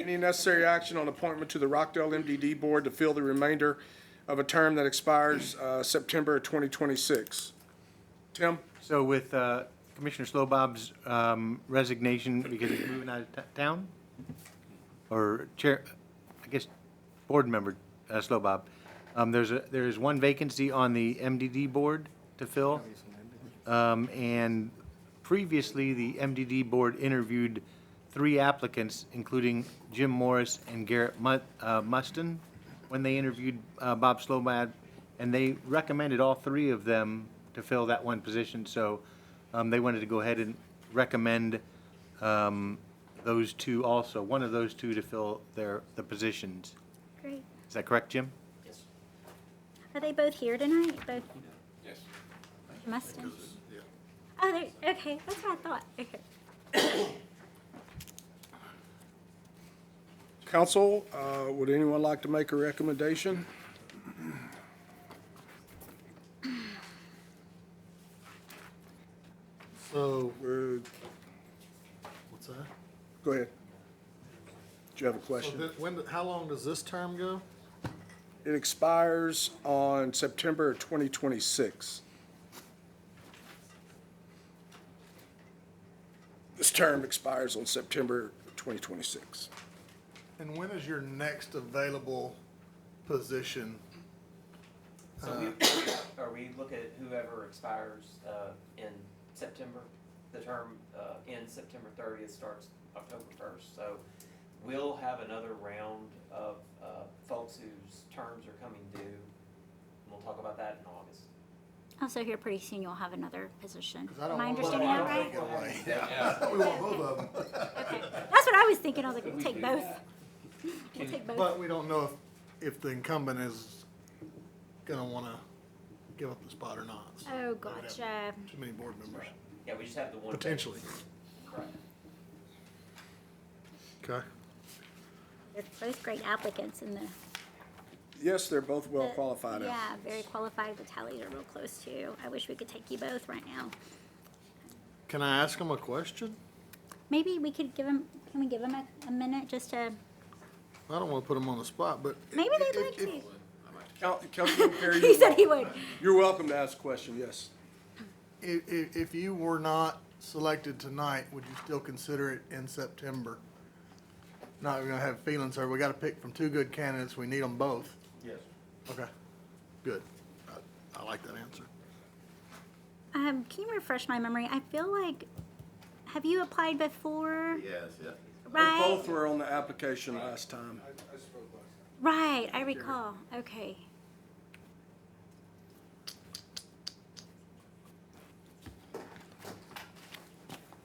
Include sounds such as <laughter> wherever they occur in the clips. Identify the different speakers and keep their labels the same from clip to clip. Speaker 1: any necessary action on appointment to the Rockdale MDD Board to fill the remainder of a term that expires uh, September 2026. Tim?
Speaker 2: So with uh, Commissioner Slowbob's um, resignation because he's moving out of t- town? Or Chair, I guess, Board Member uh, Slowbob, um, there's a, there is one vacancy on the MDD Board to fill. Um, And previously, the MDD Board interviewed three applicants, including Jim Morris and Garrett Mu- uh, Muston, when they interviewed uh, Bob Slowbad, and they recommended all three of them to fill that one position. So um, they wanted to go ahead and recommend um, those two also, one of those two to fill their, the positions.
Speaker 3: Great.
Speaker 2: Is that correct, Jim?
Speaker 3: Are they both here tonight? Both? Yes. Must have. Oh, they're, okay, that's what I thought. Okay.
Speaker 1: Council, uh, would anyone like to make a recommendation?
Speaker 4: So,
Speaker 1: We're-
Speaker 4: what's that?
Speaker 1: Go ahead. Do you have a
Speaker 4: So
Speaker 1: question?
Speaker 4: thi- when, how long does this term go?
Speaker 1: It expires on September 2026. This term expires on September 2026.
Speaker 5: And when is your next available position?
Speaker 6: So
Speaker 5: Uh.
Speaker 6: we, or we look at whoever expires uh, in September, the term uh, ends September thirtieth, starts October first. So we'll have another round of uh, folks whose terms are coming due, and we'll talk about that in August.
Speaker 3: Also, here pretty soon you'll have another position.
Speaker 4: 'Cause I
Speaker 3: Am
Speaker 4: don't
Speaker 3: I
Speaker 4: want-
Speaker 3: understanding
Speaker 5: Well, I
Speaker 3: that
Speaker 5: don't
Speaker 3: right?
Speaker 5: think it'll wait. Yeah, we want both of them.
Speaker 3: Okay. That's what I was thinking. I was like, we'll take both. <laughs> We'll take both.
Speaker 5: But we don't know if, if the incumbent is gonna wanna give up the spot or not. So
Speaker 3: Oh, gotcha.
Speaker 5: Too many board members,
Speaker 6: Yeah, we just have the one.
Speaker 5: potentially.
Speaker 6: Right.
Speaker 5: Okay.
Speaker 3: They're both great applicants in the.
Speaker 1: Yes, they're both well
Speaker 3: the-
Speaker 1: qualified.
Speaker 3: Uh, Yeah, very qualified. The tallies are real close too. I wish we could take you both right now.
Speaker 4: Can I ask them a question?
Speaker 3: Maybe we could give them, can we give them a, a minute just to,
Speaker 4: I don't wanna put them on the spot, but.
Speaker 3: maybe
Speaker 4: if-
Speaker 3: they'd like
Speaker 4: if-
Speaker 3: to. <laughs>
Speaker 1: Coun- Councilman Perry,
Speaker 3: He
Speaker 1: you're
Speaker 3: said he
Speaker 1: welcome-
Speaker 3: would.
Speaker 1: you're welcome to ask a question, yes.
Speaker 5: If, if, if you were not selected tonight, would you still consider it in September? Not gonna have feelings, sir. We gotta pick from two good candidates. We need them both.
Speaker 1: Yes.
Speaker 5: Okay, good. I- I like that answer.
Speaker 3: Um, can you refresh my memory? I feel like, have you applied before?
Speaker 7: Yes, yeah.
Speaker 3: Right,
Speaker 1: Both were on the application last time.
Speaker 3: right. I recall. Okay.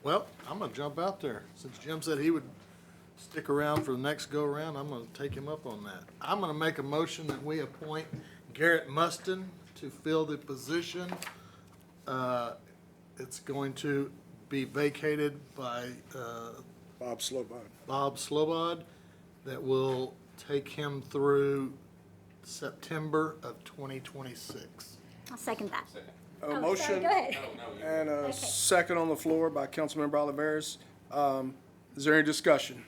Speaker 4: Well, I'm gonna jump out there. Since Jim said he would stick around for the next go-around, I'm gonna take him up on that. I'm gonna make a motion that we appoint Garrett Muston to fill the position. Uh, It's going to be vacated by, uh,
Speaker 1: Bob Slowbod.
Speaker 4: Bob Slobod that will take him through September of 2026.
Speaker 3: I'll second that.
Speaker 1: A
Speaker 3: Oh, sorry,
Speaker 1: motion
Speaker 3: Go ahead.
Speaker 1: and a second on the floor by Councilmember Oliveris. Um, Is there any discussion?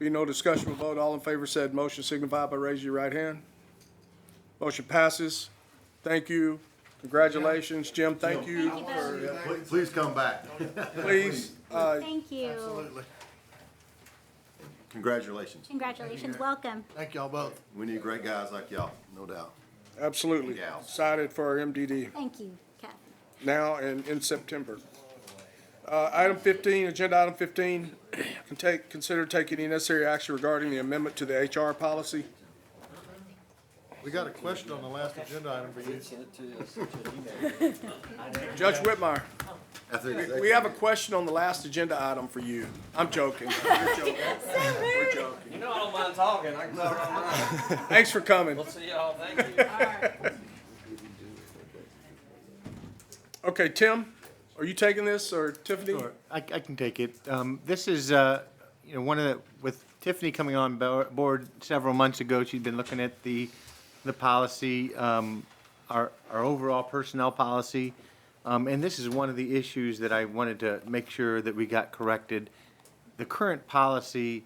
Speaker 1: Be no discussion, we'll vote. All in favor said motion signify by raising your right hand. Motion passes. Thank you. Congratulations, Jim. Thank you.
Speaker 3: Thank you both.
Speaker 7: Pl- Please come back.
Speaker 1: Please, uh,
Speaker 3: Thank you.
Speaker 7: Congratulations.
Speaker 3: Congratulations. Welcome.
Speaker 5: Thank y'all both.
Speaker 7: We need great guys like y'all, no doubt.
Speaker 1: absolutely.
Speaker 7: Yeah.
Speaker 1: Excited for our MDD.
Speaker 3: Thank you, Kathy.
Speaker 1: now and in September. Uh, item fifteen, agenda item fifteen, <clears throat> can take, consider taking any necessary action regarding the amendment to the HR policy.
Speaker 4: We got a question on the last agenda item for you.
Speaker 1: Judge Whitmire,
Speaker 7: I think it's
Speaker 1: we have a question on the last agenda item for you. I'm joking. <laughs> We're joking. We're joking.
Speaker 6: You know, I don't mind talking. I can talk all night.
Speaker 1: Thanks for coming.
Speaker 6: We'll see y'all. Thank you.
Speaker 1: Okay, Tim, are you taking this or Tiffany?
Speaker 2: Sure, I, I can take it. Um, this is, uh, you know, one of the, with Tiffany coming on bo- board several months ago, she'd been looking at the, the policy, um, our, our overall personnel policy. Um, and this is one of the issues that I wanted to make sure that we got corrected. The current policy